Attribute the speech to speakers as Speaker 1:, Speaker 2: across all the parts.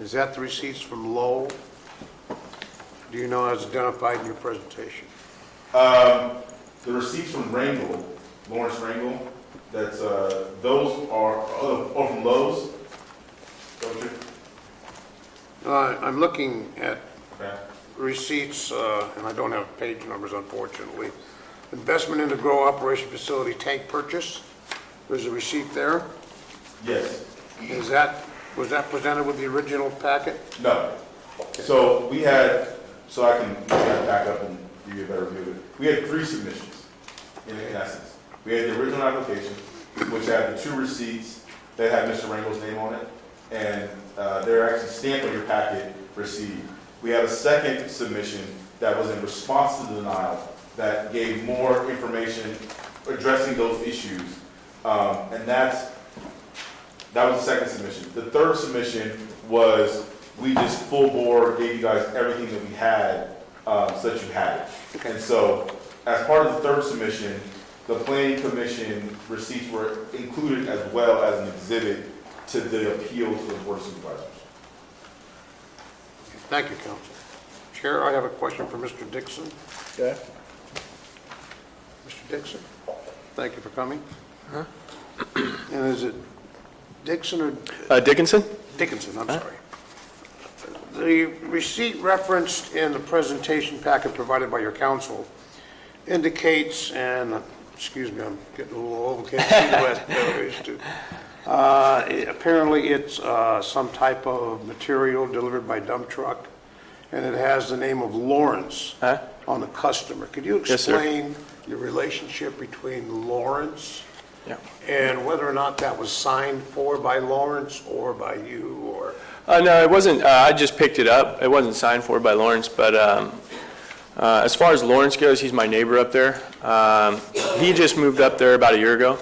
Speaker 1: Is that the receipts from Lowell? Do you know as identified in your presentation?
Speaker 2: The receipts from Rangel, Lawrence Rangel, that's, uh, those are, oh, oh, from Lowe's? Don't you?
Speaker 1: Uh, I'm looking at
Speaker 2: Okay.
Speaker 1: receipts, uh, and I don't have page numbers unfortunately. Investment in the grow operation facility tank purchase, there's a receipt there.
Speaker 2: Yes,
Speaker 1: Is that, was that presented with the original packet?
Speaker 2: no. So we had, so I can, we can back up and give you a better view. We had three submissions, in, in essence. We had the original application, which had the two receipts that had Mr. Rangel's name on it, and, uh, they're actually stamped on your packet, received. We had a second submission that was in response to the denial, that gave more information addressing those issues. Um, and that's That was the second submission. The third submission was, we just full bore gave you guys everything that we had, um, so that you had it. And so, as part of the third submission, the planning commission receipts were included as well as an exhibit to the appeal to the board of supervisors.
Speaker 1: Thank you, counsel. Chair, I have a question for Mr. Dixon.
Speaker 3: Okay.
Speaker 1: Mr. Dixon, thank you for coming. And is it Dixon or
Speaker 4: Uh, Dickinson?
Speaker 1: Dickinson, I'm sorry. The receipt referenced in the presentation packet provided by your counsel indicates, and, excuse me, I'm getting a little old, can't see west, no, it's too- Uh, it- Apparently, it's uh, some type of material delivered by dump truck, and it has the name of Lawrence
Speaker 4: Huh?
Speaker 1: on the customer. Could you
Speaker 4: Yes, sir.
Speaker 1: explain the relationship between Lawrence
Speaker 4: Yeah.
Speaker 1: and whether or not that was signed for by Lawrence or by you, or,
Speaker 4: Uh, no, it wasn't, uh, I just picked it up. It wasn't signed for by Lawrence, but, um, uh, as far as Lawrence goes, he's my neighbor up there. Um, he just moved up there about a year ago.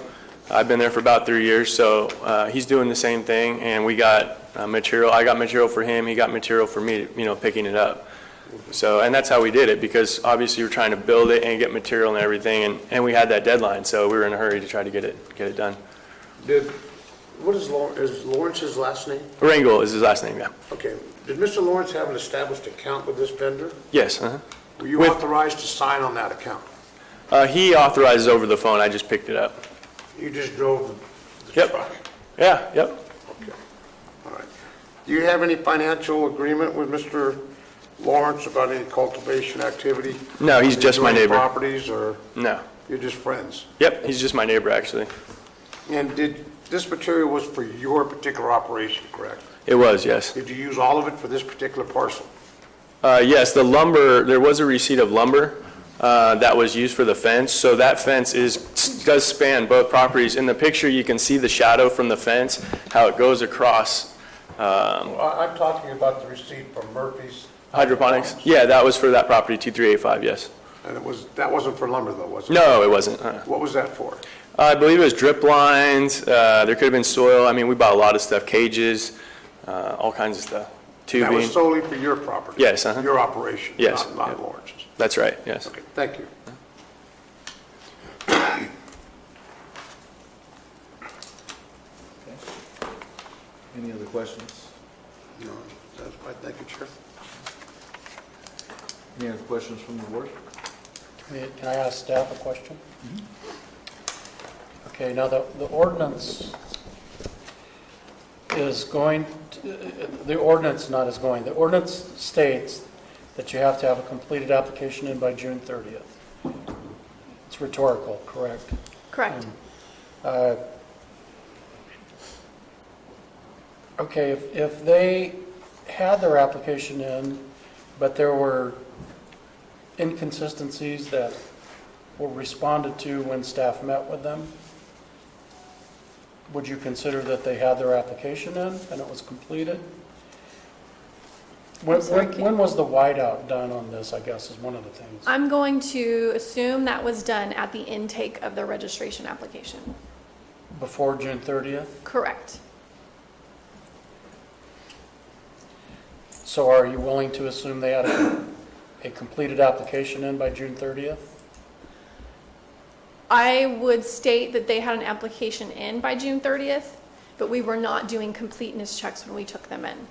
Speaker 4: I've been there for about three years, so, uh, he's doing the same thing, and we got, uh, material, I got material for him, he got material for me, you know, picking it up. So, and that's how we did it, because obviously we're trying to build it and get material and everything, and, and we had that deadline, so we were in a hurry to try to get it, get it done.
Speaker 1: did, what is Lawrence, is Lawrence's last name?
Speaker 4: Rangel is his last name, yeah.
Speaker 1: Okay, did Mr. Lawrence have an established account with this vendor?
Speaker 4: Yes, uh-huh.
Speaker 1: Were you
Speaker 4: With-
Speaker 1: authorized to sign on that account?
Speaker 4: Uh, he authorizes over the phone, I just picked it up.
Speaker 1: You just drove the- the
Speaker 4: Yep.
Speaker 1: truck?
Speaker 4: Yeah, yep.
Speaker 1: Okay, all right. Do you have any financial agreement with Mr. Lawrence about any cultivation activity?
Speaker 4: No, he's just my
Speaker 1: Joint
Speaker 4: neighbor.
Speaker 1: Properties, or
Speaker 4: No.
Speaker 1: you're just friends?
Speaker 4: Yep, he's just my neighbor, actually.
Speaker 1: And did, this material was for your particular operation, correct?
Speaker 4: It was, yes.
Speaker 1: Did you use all of it for this particular parcel?
Speaker 4: Uh, yes, the lumber, there was a receipt of lumber, uh, that was used for the fence, so that fence is, does span both properties. In the picture, you can see the shadow from the fence, how it goes across
Speaker 1: Well, I- I'm talking about the receipt from Murphy's,
Speaker 4: hydroponics. Yeah, that was for that property, 2385, yes.
Speaker 1: and it was, that wasn't for lumber though, was it?
Speaker 4: No, it wasn't. uh.
Speaker 1: What was that for?
Speaker 4: I believe it was drip lines, uh, there could have been soil, I mean, we bought a lot of stuff, cages, uh, all kinds of stuff,
Speaker 1: That
Speaker 4: tubing.
Speaker 1: was solely for your property?
Speaker 4: Yes, uh-huh.
Speaker 1: Your operation?
Speaker 4: Yes,
Speaker 1: not- Not
Speaker 4: yeah.
Speaker 1: Lawrence's?
Speaker 4: That's right, yes.
Speaker 1: Okay, thank you.
Speaker 3: Any other questions?
Speaker 1: No, That's fine, thank you, Chair.
Speaker 3: Any other questions from the board?
Speaker 5: May- Can I ask staff a question? Okay, now the, the ordinance is going, to- the ordinance not is going, the ordinance states that you have to have a completed application in by June 30th. It's rhetorical, correct?
Speaker 6: Correct.
Speaker 5: Um, Uh, Okay, if, if they had their application in, but there were inconsistencies that were responded to when staff met with them, would you consider that they had their application in and it was completed? When,
Speaker 6: I'm sorry,
Speaker 5: when-
Speaker 6: can-
Speaker 5: when was the whiteout done on this, I guess, is one of the things?
Speaker 6: I'm going to assume that was done at the intake of the registration application.
Speaker 5: Before June 30th?
Speaker 6: Correct.
Speaker 5: So are you willing to assume they had a, a completed application in by June 30th?
Speaker 6: I would state that they had an application in by June 30th, but we were not doing completeness checks when we took them in.